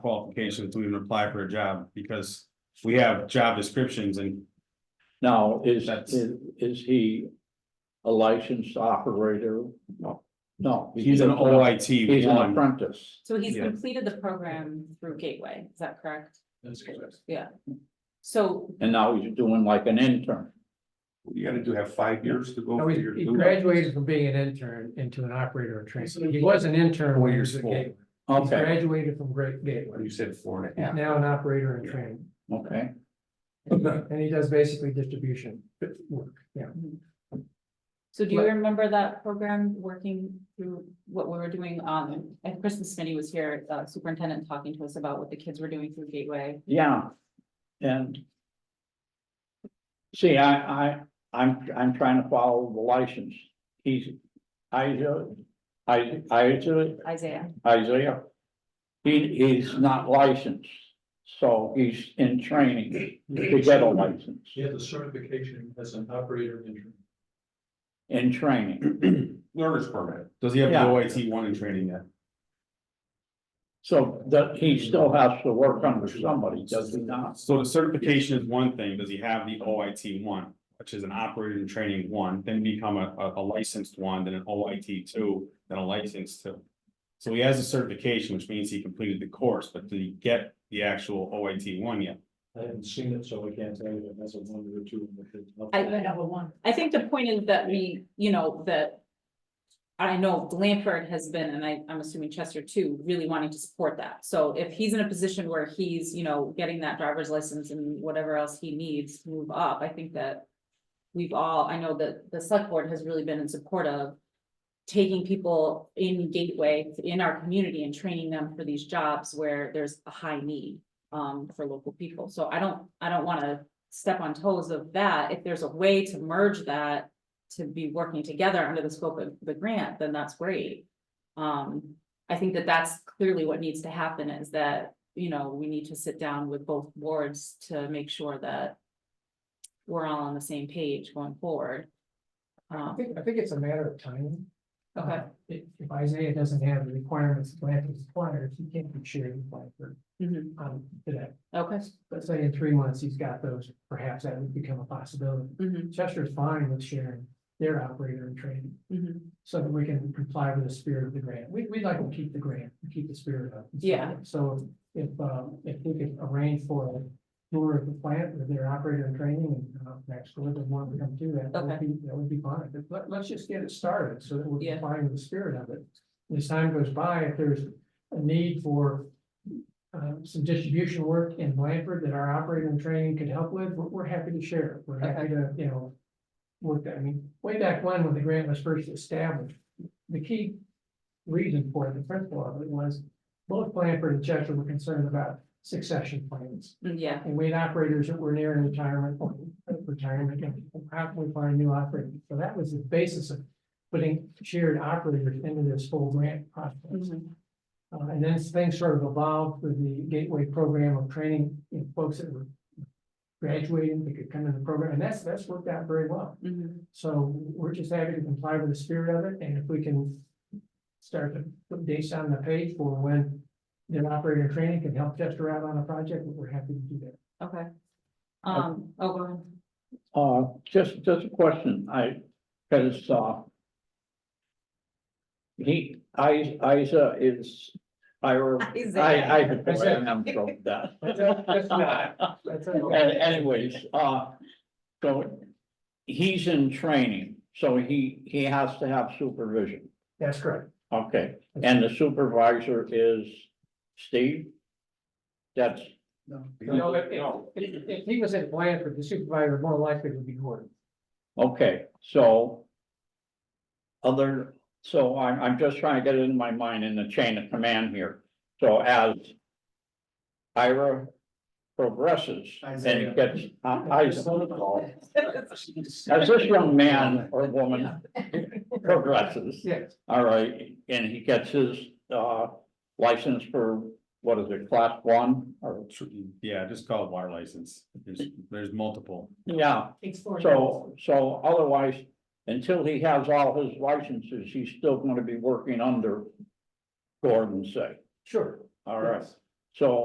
qualifications to even apply for a job, because we have job descriptions and Now, is, That's- is, is he a licensed operator? No. No. he's an appren- OIT He's an one. apprentice. So he's Yeah. completed the program through Gateway, is that correct? That's correct. Yeah. So, And now he's doing like an intern. You gotta do have five years to go. No, for he your- he graduated from being an intern into an operator and trainee. He was an intern. Four when he years was at full. Gateway. He Okay, graduated from Great Gateway. You said four and a half. Now an operator and trainee. okay. And he does basically distribution work, yeah. so do you remember that program working through what we were doing on, and Christmas Smitty was here, uh, superintendent talking to us about what the kids were doing through Gateway. Yeah, and. See, I, I, I'm, I'm trying to follow the license. He's, Isaiah, I, Isaiah, Isaiah, Isaiah. He, he's not licensed, so he's in training to get a license, He has a certification as an operator intern. in training. Learner's permit. Does he have the Yeah. OIT one in training yet? So that he still has to work under somebody, does he not? So the certification is one thing, does he have the OIT one, which is an operator in training one, then become a, a- a licensed one, then an OIT two, then a licensed two. So he has a certification, which means he completed the course, but did he get the actual OIT one yet? I haven't seen it, so I can't tell you if that's a one or two. in the fifth. I- I have a one. I think the point is that we, you know, that. I know Blanford has been, and I, I'm assuming Chester too, really wanting to support that. So if he's in a position where he's, you know, getting that driver's license and whatever else he needs to move up, I think that. We've all, I know that the select board has really been in support of. Taking people in Gateway, in our community and training them for these jobs where there's a high need. Um, for local people. So I don't, I don't wanna step on toes of that, if there's a way to merge that. To be working together under the scope of the grant, then that's great. Um, I think that that's clearly what needs to happen is that, you know, we need to sit down with both boards to make sure that. We're all on the same page going forward. I Um, think, I think it's a matter of timing. okay, Uh, If, if Isaiah doesn't have the requirements Blanford's required, he can't be shared with Blanford mhm, on today. okay, Let's say in three months, he's got those, perhaps that would become a possibility. mhm, Chester's fine with sharing their operator and training, mhm, so that we can comply with the spirit of the grant. We, we'd like to keep the grant, keep the spirit up. Yeah. So if, um, if we could arrange for a tour of the plant with their operator and training and, uh, next door, then one would come do that. That would Okay. be, that would be fine. But let, let's just get it started, so that we're Yeah. complying with the spirit of it. As time goes by, if there's a need for um, some distribution work in Blanford that our operator and training could help with, we're, we're happy to share. We're happy to, you know, work that, I mean, way back when, when the grant was first established, the key reason for it, the principle of it was both Blanford and Chester were concerned about succession plans. mm, yeah, And we had operators that were nearing retirement, or retirement, and how can we find new operators? So that was the basis of putting shared operators into this whole grant process. mhm, Uh, and then things sort of evolved with the gateway program of training, you know, folks that were graduating, they could come in the program, and that's, that's worked out very well. mhm, So we're just happy to comply with the spirit of it, and if we can start to put dates on the page for when their operator training can help Chester out on a project, we're happy to do that. okay. Um, oh, go ahead. Uh, just, just a question, I, cause, uh. He, I, Isa is, Ira. I, I, Isaiah. boy, I'm from that. That's not- That's a- And anyways, uh, so he's in training, so he, he has to have supervision. That's correct. Okay, and the supervisor is Steve? That's, No, if, if, if he was in Blanford, the supervisor more likely would be Gordon. okay, so. Other, so I'm, I'm just trying to get it in my mind in the chain of command here. So as Ira progresses, then Isaiah. it gets, uh, Isaiah. As this young man or woman progresses, Yes, all right, and he gets his uh license for, what is it, class one or? Yeah, just call it water license, there's, there's multiple. Yeah, so, so otherwise, until he has all his licenses, he's still gonna be working under Gordon say, sure. all right, So